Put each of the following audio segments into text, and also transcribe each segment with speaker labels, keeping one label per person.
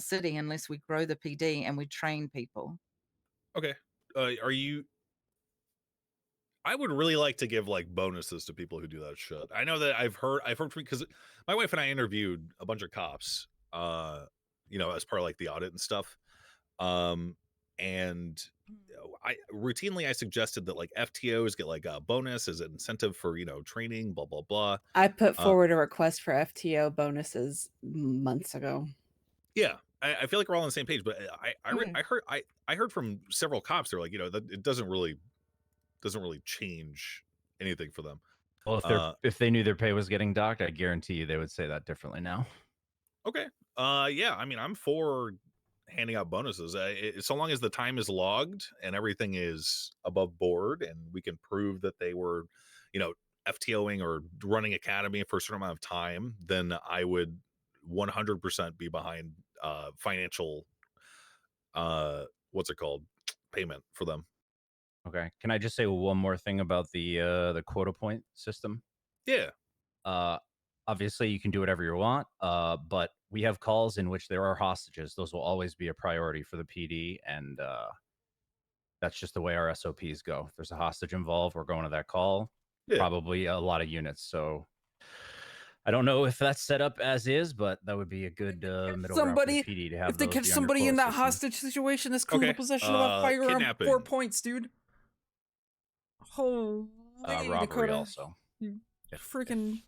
Speaker 1: city unless we grow the PD and we train people.
Speaker 2: Okay. Uh, are you? I would really like to give like bonuses to people who do that shit. I know that I've heard I've heard from because my wife and I interviewed a bunch of cops, uh, you know, as part of like the audit and stuff. Um, and you know, I routinely I suggested that like FTOs get like a bonus as an incentive for you know training, blah blah blah.
Speaker 3: I put
Speaker 2: Uh,
Speaker 3: forward a request for FTO bonuses months ago.
Speaker 2: Yeah, I, I feel like we're all on the same page. But uh, I I, re-
Speaker 3: Okay.
Speaker 2: I heard I I heard from several cops. They're like, you know, that it doesn't really doesn't really change anything for them.
Speaker 4: Well, if they
Speaker 2: Uh,
Speaker 4: are if they knew their pay was getting docked, I guarantee you they would say that differently now.
Speaker 2: Okay. Uh, yeah. I mean, I'm for handing out bonuses. Uh, it, so long as the time is logged and everything is above board, and we can prove that they were, you know, FTOing or running academy for a certain amount of time, then I would 100% be behind uh, financial. Uh, what's it called? Payment for them.
Speaker 4: Okay. Can I just say one more thing about the uh, the quota point system?
Speaker 2: Yeah.
Speaker 4: Uh, obviously, you can do whatever you want, uh, but we have calls in which there are hostages. Those will always be a priority for the PD, and uh, that's just the way our SOPs go. If there's a hostage involved, we're going to that call.
Speaker 2: Yeah.
Speaker 4: Probably a lot of units. So I don't know if that's set up as is, but that would be a good uh, middle ground for the
Speaker 5: somebody-
Speaker 4: PD to have.
Speaker 5: if they
Speaker 4: those
Speaker 5: catch
Speaker 4: be under
Speaker 5: somebody
Speaker 4: quota
Speaker 5: in that
Speaker 4: system.
Speaker 5: hostage situation that's criminal
Speaker 2: Okay,
Speaker 5: possession of a
Speaker 2: uh,
Speaker 5: firearm, four
Speaker 2: kidnapping.
Speaker 5: points, dude. Holy
Speaker 4: uh, robbery
Speaker 5: Dakota.
Speaker 4: also. if-
Speaker 5: Freaking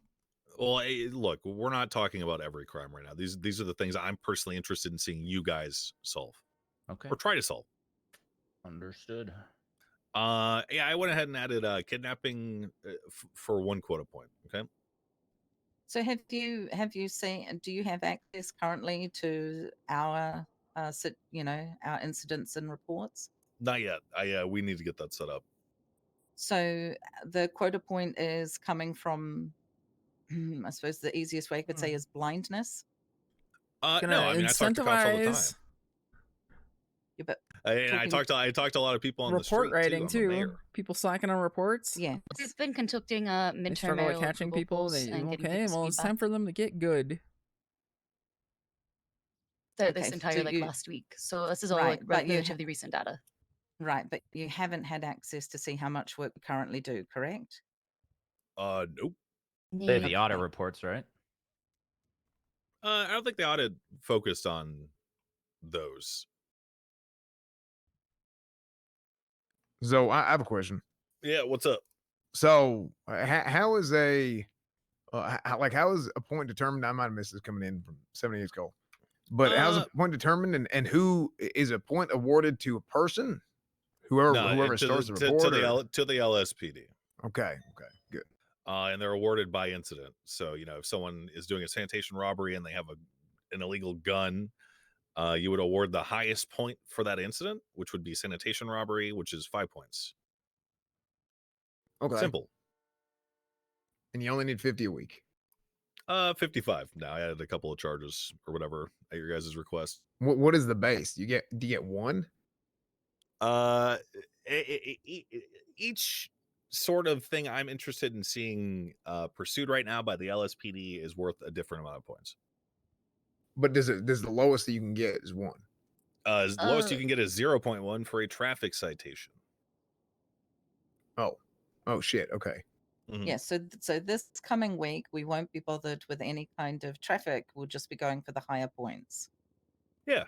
Speaker 2: Well, eh, look, we're not talking about every crime right now. These these are the things I'm personally interested in seeing you guys solve
Speaker 4: Okay.
Speaker 2: or try to solve.
Speaker 4: Understood.
Speaker 2: Uh, yeah, I went ahead and added uh, kidnapping uh, f- for one quota point. Okay.
Speaker 1: So have you have you seen? uh, Do you have access currently to our uh, sit- you know our incidents and reports?
Speaker 2: Not yet. I uh, we need to get that set up.
Speaker 1: So uh, the quota point is coming from, I suppose the easiest way I could say is blindness.
Speaker 2: Uh,
Speaker 5: gonna
Speaker 2: no, I mean I talk to cops all the time,
Speaker 5: incentivize
Speaker 1: Yeah, but
Speaker 2: I, and I
Speaker 1: Talking-
Speaker 2: talked to I talked to a lot of people on the street
Speaker 5: report writing
Speaker 2: too. I'm a
Speaker 5: too.
Speaker 2: mayor.
Speaker 5: People slacking on reports.
Speaker 1: yeah,
Speaker 6: He's been conducting uh
Speaker 5: They
Speaker 6: midterm
Speaker 5: struggle with
Speaker 6: aerial
Speaker 5: catching
Speaker 6: approval
Speaker 5: people.
Speaker 6: polls
Speaker 5: They,
Speaker 6: and getting
Speaker 5: okay,
Speaker 6: people's
Speaker 5: well, it's
Speaker 6: feedback
Speaker 5: time for them to get good.
Speaker 6: th-
Speaker 1: Okay,
Speaker 6: this
Speaker 1: so
Speaker 6: entire like
Speaker 1: you-
Speaker 6: last week. So this is all
Speaker 1: Right,
Speaker 6: like
Speaker 1: but you
Speaker 6: refuge
Speaker 1: ha-
Speaker 6: of the recent data.
Speaker 1: right. But you haven't had access to see how much work we currently do, correct?
Speaker 2: Uh, nope.
Speaker 4: They have
Speaker 1: Yeah.
Speaker 4: the audit reports, right?
Speaker 2: Uh, I don't think the audit focused on those.
Speaker 7: So I, I have a question.
Speaker 2: Yeah. What's up?
Speaker 7: So uh, ho- how is a uh, h- how, like how is a point determined? I might have missed this coming in from seven years ago, but how's
Speaker 2: Uh,
Speaker 7: a point determined, and, and who i- is a point awarded to a person? Whoever
Speaker 2: No,
Speaker 7: whoever
Speaker 2: it- to
Speaker 7: starts
Speaker 2: the,
Speaker 7: the,
Speaker 2: to-
Speaker 7: report.
Speaker 2: to, the
Speaker 7: or-
Speaker 2: L, to the LSPD.
Speaker 7: okay, okay, good.
Speaker 2: uh, and they're awarded by incident. So you know, if someone is doing a sanitation robbery and they have a an illegal gun, uh, you would award the highest point for that incident, which would be sanitation robbery, which is five points.
Speaker 7: Okay,
Speaker 2: Simple.
Speaker 7: and you only need fifty a week.
Speaker 2: Uh, fifty-five. Now I added a couple of charges or whatever at your guys' request.
Speaker 7: What what is the base? You get do you get one?
Speaker 2: Uh, e- e- e- each sort of thing I'm interested in seeing uh, pursued right now by the LSPD is worth a different amount of points.
Speaker 7: But does it does the lowest that you can get is one?
Speaker 2: Uh, as lowest you
Speaker 6: Oh.
Speaker 2: can get is zero point one for a traffic citation.
Speaker 7: Oh, oh shit. Okay,
Speaker 2: Mhm.
Speaker 1: Yeah, so th- so this coming week we won't be bothered with any kind of traffic. We'll just be going for the higher points.
Speaker 2: Yeah.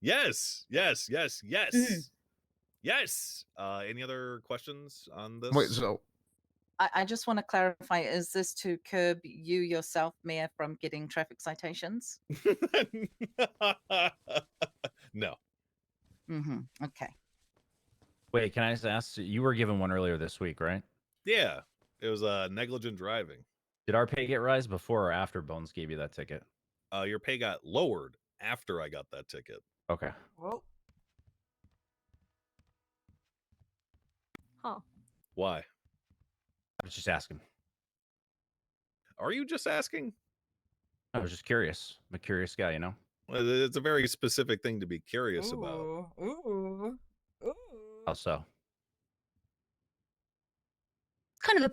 Speaker 2: Yes, yes, yes, yes, yes. Uh, any other questions on this?
Speaker 7: wait. So
Speaker 1: I, I just want to clarify: is this to curb you yourself, Mayor, from getting traffic citations?
Speaker 2: no.
Speaker 1: Mm-hmm. Okay.
Speaker 4: Wait, can I just ask? You were given one earlier this week, right?
Speaker 2: Yeah, it was uh, negligent driving.
Speaker 4: Did our pay get rise before or after Bones gave you that ticket?
Speaker 2: Uh, your pay got lowered after I got that ticket.
Speaker 4: Okay.
Speaker 5: Well,
Speaker 6: Huh.
Speaker 2: Why?
Speaker 4: I was just asking.
Speaker 2: Are you just asking?
Speaker 4: I was just curious. I'm a curious guy, you know?
Speaker 2: Well, It's a very specific thing to be curious about.
Speaker 5: Ooh, ooh, ooh.
Speaker 4: How so?
Speaker 6: kind of the